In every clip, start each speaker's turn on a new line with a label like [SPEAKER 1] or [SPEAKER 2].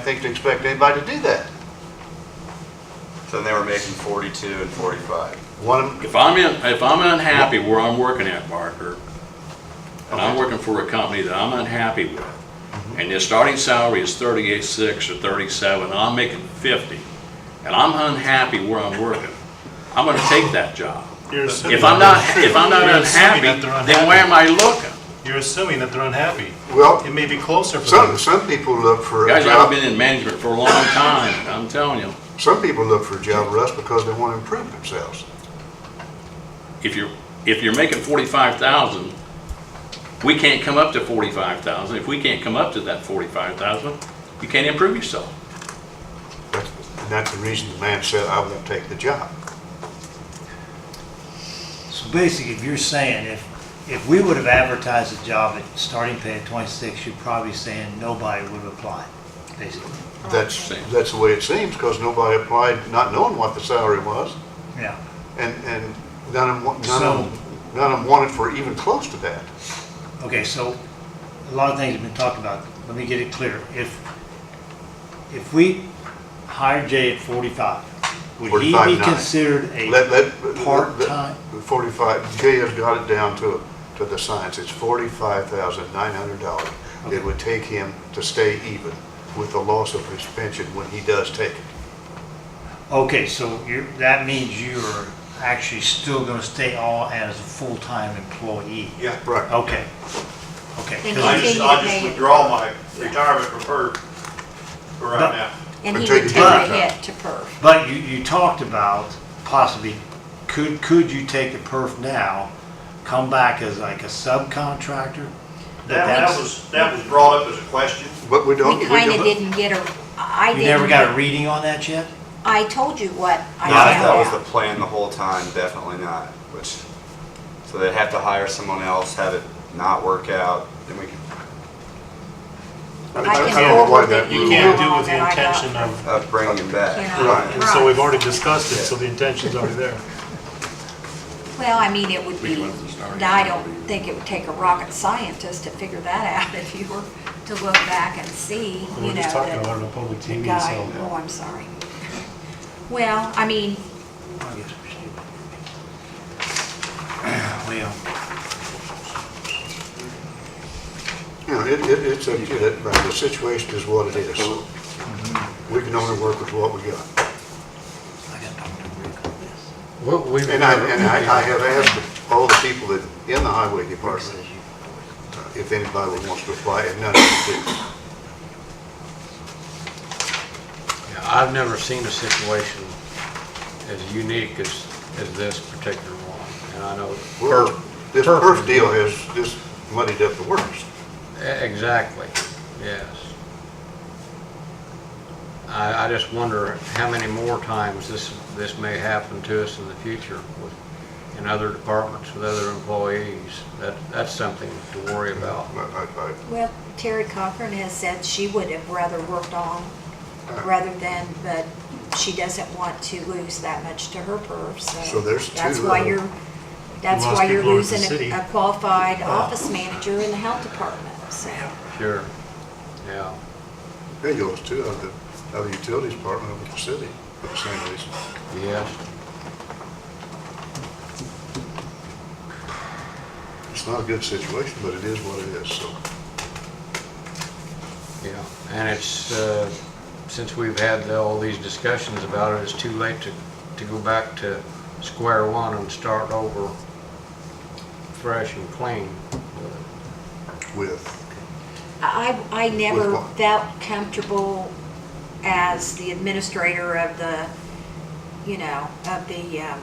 [SPEAKER 1] I think to expect anybody to do that.
[SPEAKER 2] Then they were making 42 and 45.
[SPEAKER 1] One,
[SPEAKER 3] If I'm in, if I'm unhappy where I'm working at, Barker, and I'm
[SPEAKER 1] Okay.
[SPEAKER 3] working for a company that I'm unhappy with, and their starting salary is thirty-eight six or thirty-seven, and I'm making fifty, and I'm unhappy where I'm working, I'm gonna take that job.
[SPEAKER 4] You're assuming
[SPEAKER 3] If I'm not,
[SPEAKER 4] that's true.
[SPEAKER 3] if I'm not
[SPEAKER 4] You're assuming
[SPEAKER 3] unhappy,
[SPEAKER 4] that they're
[SPEAKER 3] then where am I looking?
[SPEAKER 4] You're assuming that they're unhappy.
[SPEAKER 1] well,
[SPEAKER 4] It may be closer for
[SPEAKER 1] some,
[SPEAKER 4] them.
[SPEAKER 1] some people look for a
[SPEAKER 3] Guys, I've
[SPEAKER 1] job,
[SPEAKER 3] been in management for a long time, and I'm telling you,
[SPEAKER 1] some people look for a job, Russ, because they want to improve themselves.
[SPEAKER 3] if you're, if you're making forty-five thousand, we can't come up to forty-five thousand, if we can't come up to that forty-five thousand, you can't improve yourself.
[SPEAKER 1] That's, and that's the reason the man said, I won't take the job.
[SPEAKER 5] So basically, if you're saying if, if we would have advertised a job at starting pay at 26, you're probably saying nobody would have applied, basically.
[SPEAKER 1] That's,
[SPEAKER 3] Okay.
[SPEAKER 1] that's the way it seems, because nobody applied, not knowing what the salary was,
[SPEAKER 5] Yeah.
[SPEAKER 1] and, and none of them, wa- none
[SPEAKER 5] So-
[SPEAKER 1] of them, none of them wanted for even close to that.
[SPEAKER 5] Okay, so a lot of things have been talked about. Let me get it clear. If, if we hired Jay at 45, would he
[SPEAKER 1] 45.9.
[SPEAKER 5] be considered
[SPEAKER 1] Let, let.
[SPEAKER 5] a,
[SPEAKER 1] let-
[SPEAKER 5] Part-time.
[SPEAKER 1] Forty-five, Jay has got it down to, to the science, it's forty-five thousand nine hundred dollars. It would take him to stay even with the loss of his pension when he does take it.
[SPEAKER 5] okay, so you're, that means you're actually still going to stay on as a full-time employee?
[SPEAKER 6] Yeah,
[SPEAKER 1] Right.
[SPEAKER 5] Okay, okay.
[SPEAKER 7] And
[SPEAKER 5] 'Cause
[SPEAKER 6] I
[SPEAKER 5] you-
[SPEAKER 6] just, I just withdraw my retirement from PERF for right now.
[SPEAKER 7] And he
[SPEAKER 1] Until you
[SPEAKER 7] would take
[SPEAKER 1] do
[SPEAKER 7] a
[SPEAKER 1] it.
[SPEAKER 7] hit to perf.
[SPEAKER 5] But you, you talked about possibly, could, could you take the perf now, come back as like a subcontractor?
[SPEAKER 6] That,
[SPEAKER 5] But
[SPEAKER 6] that
[SPEAKER 5] that's-
[SPEAKER 6] was, that was brought up as a question.
[SPEAKER 1] But we don't.
[SPEAKER 7] We kind of
[SPEAKER 1] don't-
[SPEAKER 7] didn't get a, I
[SPEAKER 5] You
[SPEAKER 7] didn't.
[SPEAKER 5] never got a reading on that yet?
[SPEAKER 7] I told you what I
[SPEAKER 2] Not if that was
[SPEAKER 7] found
[SPEAKER 2] the
[SPEAKER 7] out.
[SPEAKER 2] plan the whole time, definitely not, which, so they'd have to hire someone else, have it not work out, then we could,
[SPEAKER 1] I
[SPEAKER 7] I
[SPEAKER 1] don't-
[SPEAKER 7] can
[SPEAKER 1] I don't know why
[SPEAKER 7] forward
[SPEAKER 1] that
[SPEAKER 7] the
[SPEAKER 4] You
[SPEAKER 1] rule-
[SPEAKER 4] can't do
[SPEAKER 7] Yeah.
[SPEAKER 4] it with the
[SPEAKER 7] Yeah.
[SPEAKER 4] intention of,
[SPEAKER 2] uh, bring him
[SPEAKER 7] Yeah.
[SPEAKER 2] back.
[SPEAKER 1] Right.
[SPEAKER 4] and so we've already discussed it, so the intention's already there.
[SPEAKER 7] Well, I mean, it would
[SPEAKER 3] We
[SPEAKER 7] be,
[SPEAKER 3] went to the starting
[SPEAKER 7] I don't
[SPEAKER 3] salary.
[SPEAKER 7] think it would take a rocket scientist to figure that out if you were to look back and see,
[SPEAKER 4] We
[SPEAKER 7] you know,
[SPEAKER 4] We're just talking about
[SPEAKER 7] that
[SPEAKER 4] it on public
[SPEAKER 7] the
[SPEAKER 4] TV,
[SPEAKER 7] guy,
[SPEAKER 4] so.
[SPEAKER 7] oh, I'm sorry. Well, I mean,
[SPEAKER 5] Oh, I guess we're stupid. Well,
[SPEAKER 1] You know, it, it, it's, a- it- but the situation is what it is. We can only work with what we got.
[SPEAKER 5] I got to talk to Rick on this.
[SPEAKER 8] Well, we,
[SPEAKER 1] And I, and I, I have asked all the people that, in the highway
[SPEAKER 5] Rick
[SPEAKER 1] department,
[SPEAKER 5] says you-
[SPEAKER 1] if anybody wants to apply, and none of them did.
[SPEAKER 8] I've never seen a situation as unique as, as this particular one. And I know,
[SPEAKER 1] Well, This
[SPEAKER 8] Perf.
[SPEAKER 1] perf deal has just muddied up the works.
[SPEAKER 8] e- exactly, yes. I, I just wonder how many more times this, this may happen to us in the future with, in other departments with other employees. That, that's something to worry about.
[SPEAKER 1] I- I-
[SPEAKER 7] well, Terry Cochran has said she would have rather worked on rather than, but she doesn't want to lose that much to her perf, so.
[SPEAKER 1] So there's
[SPEAKER 7] That's
[SPEAKER 1] two,
[SPEAKER 7] why
[SPEAKER 1] uh,
[SPEAKER 7] you're, that's
[SPEAKER 4] lost
[SPEAKER 7] why you're
[SPEAKER 4] people over the
[SPEAKER 7] losing
[SPEAKER 4] city.
[SPEAKER 7] a- a qualified office manager in the health department, so.
[SPEAKER 8] Sure, yeah.
[SPEAKER 1] I- There goes two of uh, the, of the utilities department over the city for the same reason.
[SPEAKER 8] Yes,
[SPEAKER 1] It's not a good situation, but it is what it is, so.
[SPEAKER 8] yeah. And it's, uh, since we've had the- all these discussions about it, it's too late to, to go back to square one and start over fresh and clean.
[SPEAKER 1] With,
[SPEAKER 7] I, I never
[SPEAKER 1] what?
[SPEAKER 7] felt comfortable as the administrator of the, you know, of the, um,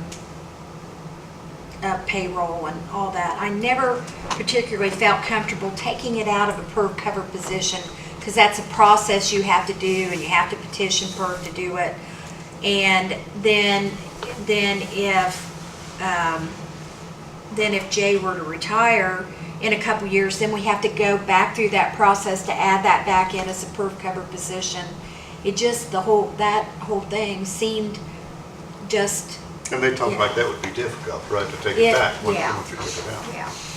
[SPEAKER 7] of payroll and all that. I never particularly felt comfortable taking it out of a per cover position, because that's a process you have to do, and you have to petition per to do it. And then, then if, um, then if Jay were to retire in a couple years, then we have to go back through that process to add that back in as a per cover position. It just, the whole, that whole thing seemed just,
[SPEAKER 1] and they talk like that would be difficult, right, to take
[SPEAKER 7] Yeah,
[SPEAKER 1] it back once
[SPEAKER 7] yeah.
[SPEAKER 1] once you get it out.
[SPEAKER 7] yeah.